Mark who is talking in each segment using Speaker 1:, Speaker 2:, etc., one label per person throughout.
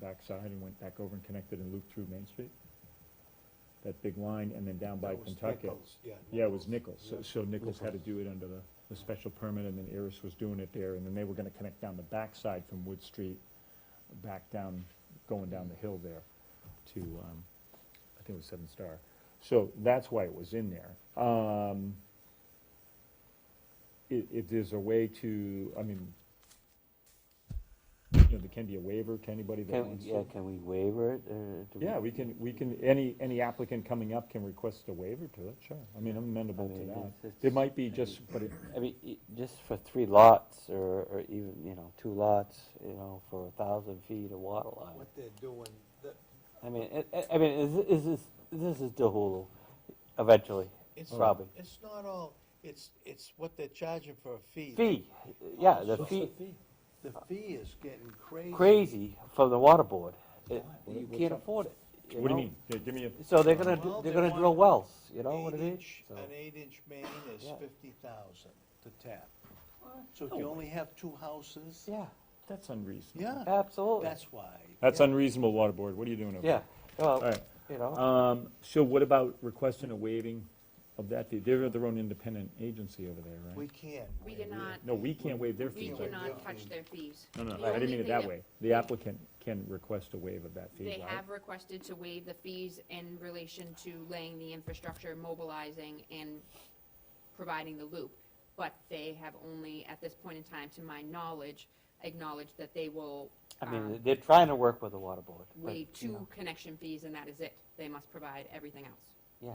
Speaker 1: backside and went back over and connected and looped through Main Street? That big line and then down by
Speaker 2: That was
Speaker 1: Kentucky?
Speaker 2: Nichols, Yeah.
Speaker 1: Yeah, it was Nichols, so,
Speaker 2: Yeah.
Speaker 1: so Nichols had to do it under the, the special permit, and then Iris was doing it there, and then they were gonna connect down the backside from Wood Street, back down, going down the hill there to, um, I think it was Seven Star. So that's why it was in there. Um, i- if there's a way to, I mean, you know, there can be a waiver to anybody that
Speaker 3: Can,
Speaker 1: wants
Speaker 3: yeah,
Speaker 1: to.
Speaker 3: can we waiver it, or? do
Speaker 1: Yeah, we can, we can, any, any applicant coming up can request a waiver to it, sure. I mean, I'm amenable
Speaker 3: I
Speaker 1: to
Speaker 3: mean,
Speaker 1: that.
Speaker 3: it's- it's-
Speaker 1: It might be just, but it,
Speaker 3: I mean, e- just for three lots, or, or even, you know, two lots, you know, for a thousand feet of water line.
Speaker 2: What they're doing, that,
Speaker 3: I mean, it- it- I mean, is, is this, this is DeHulu, eventually,
Speaker 2: it's,
Speaker 1: Oh.
Speaker 3: probably.
Speaker 2: it's not all, it's, it's what they're charging for a fee.
Speaker 3: Fee, yeah, the
Speaker 2: What's
Speaker 3: fee,
Speaker 2: The fee is getting crazy.
Speaker 3: crazy from the water board. It-
Speaker 1: What-
Speaker 3: You
Speaker 1: what's
Speaker 3: can't
Speaker 1: up?
Speaker 3: afford it.
Speaker 1: What do you
Speaker 3: know?
Speaker 1: mean? Yeah, give me a,
Speaker 3: So they're gonna,
Speaker 2: Well,
Speaker 3: do-
Speaker 2: they
Speaker 3: they're gonna
Speaker 2: want
Speaker 3: drill wells, you know what I mean?
Speaker 2: Eight-inch-
Speaker 3: So-
Speaker 2: An eight-inch main is
Speaker 3: Yeah.
Speaker 2: fifty thousand to tap. So if you only have two houses,
Speaker 3: Yeah,
Speaker 1: that's unreasonable.
Speaker 2: yeah,
Speaker 3: absolutely,
Speaker 2: that's why.
Speaker 1: That's unreasonable, water board, what are you doing over
Speaker 3: yeah,
Speaker 1: there?
Speaker 3: well,
Speaker 1: Alright,
Speaker 3: you know,
Speaker 1: um, so what about requesting a waiving of that fee? They're their own independent agency over there,
Speaker 2: We
Speaker 1: right?
Speaker 2: can't.
Speaker 4: We
Speaker 2: waive it.
Speaker 4: cannot,
Speaker 1: No, we can't waive their
Speaker 4: we
Speaker 1: fees. right?
Speaker 4: cannot touch their fees.
Speaker 1: No, no,
Speaker 4: The
Speaker 1: I didn't
Speaker 4: only
Speaker 1: mean it
Speaker 4: thing
Speaker 1: that way. The applicant can request a waive of that fee,
Speaker 4: They
Speaker 1: right?
Speaker 4: have requested to waive the fees in relation to laying the infrastructure, mobilizing, and providing the loop. But they have only, at this point in time, to my knowledge, acknowledged that they will
Speaker 3: I mean,
Speaker 4: um,
Speaker 3: they're trying to work with the water board. but,
Speaker 4: waive
Speaker 3: you know,
Speaker 4: two connection fees, and that is it. They must provide everything else.
Speaker 3: Yeah.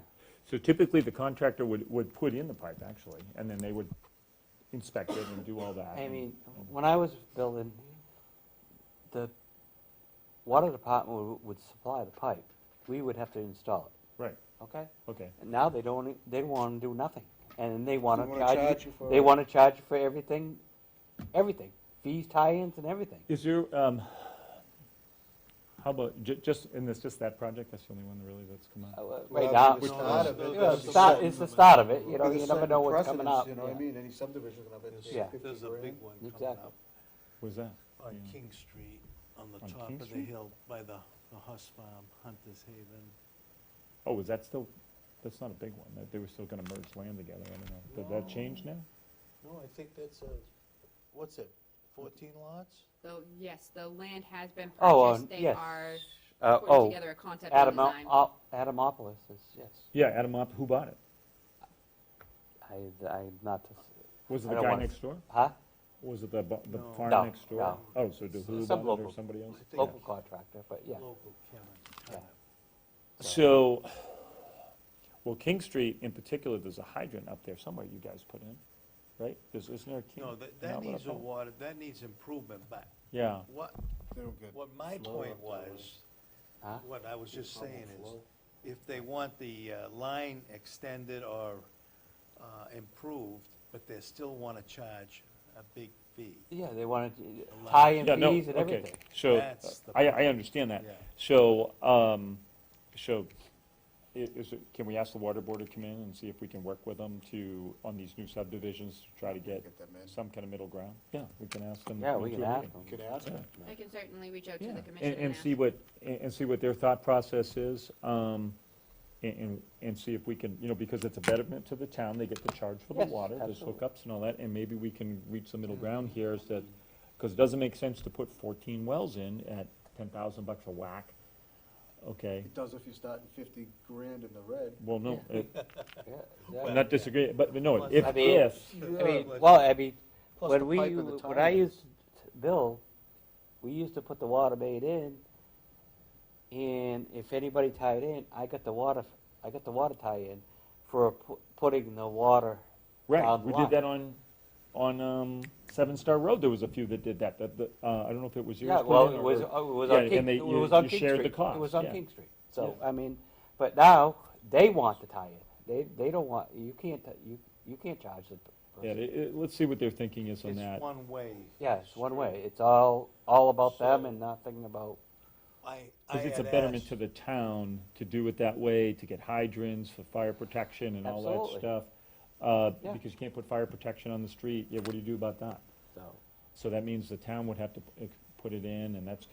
Speaker 1: So typically, the contractor would, would put in the pipe, actually, and then they would inspect it and do all that.
Speaker 3: I
Speaker 1: and-
Speaker 3: mean, when I was building, the water department would, would supply the pipe. We would have to install
Speaker 1: Right,
Speaker 3: it, okay?
Speaker 1: okay.
Speaker 3: And now they don't, e- they wanna do nothing, and they wanna
Speaker 2: wanna
Speaker 3: charge
Speaker 2: charge
Speaker 3: you,
Speaker 2: you for
Speaker 3: they
Speaker 2: it.
Speaker 3: wanna charge you for everything, everything, fees, tie-ins and everything.
Speaker 1: Is there, um, how about, ju- just, and it's just that project, that's the only one really that's come
Speaker 3: Uh,
Speaker 1: out?
Speaker 3: uh,
Speaker 5: Well,
Speaker 3: Right now,
Speaker 5: with
Speaker 3: you
Speaker 5: the
Speaker 2: start of it,
Speaker 3: know,
Speaker 2: with
Speaker 3: it's
Speaker 2: the
Speaker 3: the start-
Speaker 2: setting
Speaker 3: it's the
Speaker 5: of it.
Speaker 3: start of it, you know,
Speaker 5: With a
Speaker 3: you never
Speaker 5: certain
Speaker 3: know what's coming
Speaker 5: precedence,
Speaker 3: up.
Speaker 5: You know what I
Speaker 3: yeah.
Speaker 5: mean, any subdivision gonna have
Speaker 2: There's-
Speaker 3: Yeah.
Speaker 5: to
Speaker 2: There's a big one coming
Speaker 3: Exactly.
Speaker 2: up
Speaker 1: Where's that?
Speaker 2: on
Speaker 1: Yeah.
Speaker 2: King Street, on the
Speaker 1: On
Speaker 2: top
Speaker 1: King
Speaker 2: of the
Speaker 1: Street?
Speaker 2: hill by the, the Huss Farm, Hunter's Haven.
Speaker 1: Oh, is that still, that's not a big one, that they were still gonna merge land together, I don't know. Did that change now?
Speaker 2: No, I think that's a, what's it, fourteen lots?
Speaker 4: So, yes, the land has been
Speaker 3: Oh, uh,
Speaker 4: purchased. They
Speaker 3: yes.
Speaker 4: are
Speaker 3: Uh,
Speaker 4: putting
Speaker 3: oh,
Speaker 4: together a concept and
Speaker 3: Adam,
Speaker 4: design.
Speaker 3: Adamopolis is, yes.
Speaker 1: Yeah, Adamop, who bought it?
Speaker 3: I, I'm not, to s-
Speaker 1: Was it
Speaker 3: I
Speaker 1: the
Speaker 3: don't
Speaker 1: guy
Speaker 3: wanna-
Speaker 1: next door?
Speaker 3: huh?
Speaker 1: Was it the, bu- the
Speaker 2: No.
Speaker 1: farm
Speaker 3: No,
Speaker 1: next door?
Speaker 3: no.
Speaker 1: Oh, so did who
Speaker 3: Some
Speaker 1: bought it or
Speaker 3: local.
Speaker 1: somebody else?
Speaker 2: I think
Speaker 3: Local contractor, but yeah.
Speaker 2: Local Kevin.
Speaker 1: So, well, King Street in particular, there's a hydrant up there somewhere you guys put in, right? There's, isn't there a King?
Speaker 2: No, that,
Speaker 1: an
Speaker 2: that
Speaker 1: outlet
Speaker 2: needs
Speaker 1: up
Speaker 2: a
Speaker 1: there?
Speaker 2: water, that needs improvement, but
Speaker 1: Yeah,
Speaker 2: what,
Speaker 5: do.
Speaker 2: what my
Speaker 5: flow
Speaker 2: point
Speaker 5: up there,
Speaker 2: was,
Speaker 3: Huh?
Speaker 2: what I was just
Speaker 5: Problem
Speaker 2: saying is,
Speaker 5: flow.
Speaker 2: if they want the uh, line extended or uh, improved, but they still want to charge a big fee.
Speaker 3: Yeah, they wanted to
Speaker 2: Allow-
Speaker 3: tie in
Speaker 1: yeah, no,
Speaker 3: fees and
Speaker 1: okay.
Speaker 3: everything.
Speaker 1: So, uh,
Speaker 2: That's the
Speaker 1: I, I
Speaker 2: problem.
Speaker 1: understand that.
Speaker 2: Yeah.
Speaker 1: So, um, so, i- is, it- can we ask the water board to come in and see if we can work with them to, on these new subdivisions, to try to get
Speaker 5: Get them in.
Speaker 1: some kind of middle ground? Yeah, we can ask them. to
Speaker 3: Yeah,
Speaker 1: come
Speaker 3: we
Speaker 1: to
Speaker 3: can
Speaker 1: a
Speaker 3: ask
Speaker 1: meeting.
Speaker 3: them.
Speaker 5: Could ask them.
Speaker 4: I can certainly reach out to
Speaker 1: Yeah,
Speaker 4: the
Speaker 1: and-
Speaker 4: commission
Speaker 1: And
Speaker 4: and ask.
Speaker 1: see what, and and see what their thought process is, um, and, and, and see if we can, you know, because it's a betterment to the town, they get to charge for the
Speaker 3: Yes,
Speaker 1: water, there's
Speaker 3: absolutely.
Speaker 1: hookups and all that, and maybe we can reach the middle ground here is that, because it doesn't make sense to put fourteen wells in at ten thousand bucks a whack, okay?
Speaker 5: It does if you start in fifty grand in the red.
Speaker 1: Well, no, it-
Speaker 3: Yeah,
Speaker 1: I'm
Speaker 3: exactly.
Speaker 1: not disagreeing, but, but no,
Speaker 2: Plus-
Speaker 1: if,
Speaker 3: I mean-
Speaker 1: if,
Speaker 3: I mean,
Speaker 2: Yeah.
Speaker 3: well, I mean,
Speaker 5: Plus the
Speaker 3: when we,
Speaker 5: pipe and the
Speaker 3: when I
Speaker 5: tie-ins.
Speaker 3: used, to Bill, we used to put the water main in, and if anybody tied in, I got the water, I got the water tie-in for pu- putting the water
Speaker 1: right,
Speaker 3: down the
Speaker 1: we
Speaker 3: line.
Speaker 1: did that on, on, um, Seven Star Road, there was a few that did that, that, that, uh, I don't know if it was yours.
Speaker 3: Yeah, well,
Speaker 1: Quinn,
Speaker 3: it
Speaker 1: or-
Speaker 3: was,
Speaker 1: or-
Speaker 3: uh, it was
Speaker 1: yeah,
Speaker 3: on
Speaker 1: and
Speaker 3: King,
Speaker 1: they-
Speaker 3: it
Speaker 1: you-
Speaker 3: was on
Speaker 1: you
Speaker 3: King Street.
Speaker 1: shared the cost,
Speaker 3: It was on
Speaker 1: yeah.
Speaker 3: King Street, so,
Speaker 1: Yeah.
Speaker 3: I mean, but now, they want the tie-in, they, they don't want, you can't, t- you, you can't charge the p-
Speaker 1: Yeah,
Speaker 3: person.
Speaker 1: it- it- let's see what their thinking is on that.
Speaker 2: It's one way.
Speaker 3: Yeah, it's one way, it's all, all about them
Speaker 2: So-
Speaker 3: and nothing about,
Speaker 2: I, I
Speaker 1: Because it's a
Speaker 2: had
Speaker 1: betterment
Speaker 2: asked-
Speaker 1: to the town to do it that way, to get hydrants for fire protection and all that
Speaker 3: Absolutely.
Speaker 1: stuff. Uh,
Speaker 3: Yeah.
Speaker 1: Because you can't put fire protection on the street, yeah, what do you do about that?
Speaker 3: so.
Speaker 1: So that means the town would have to p- eh, put it in, and that's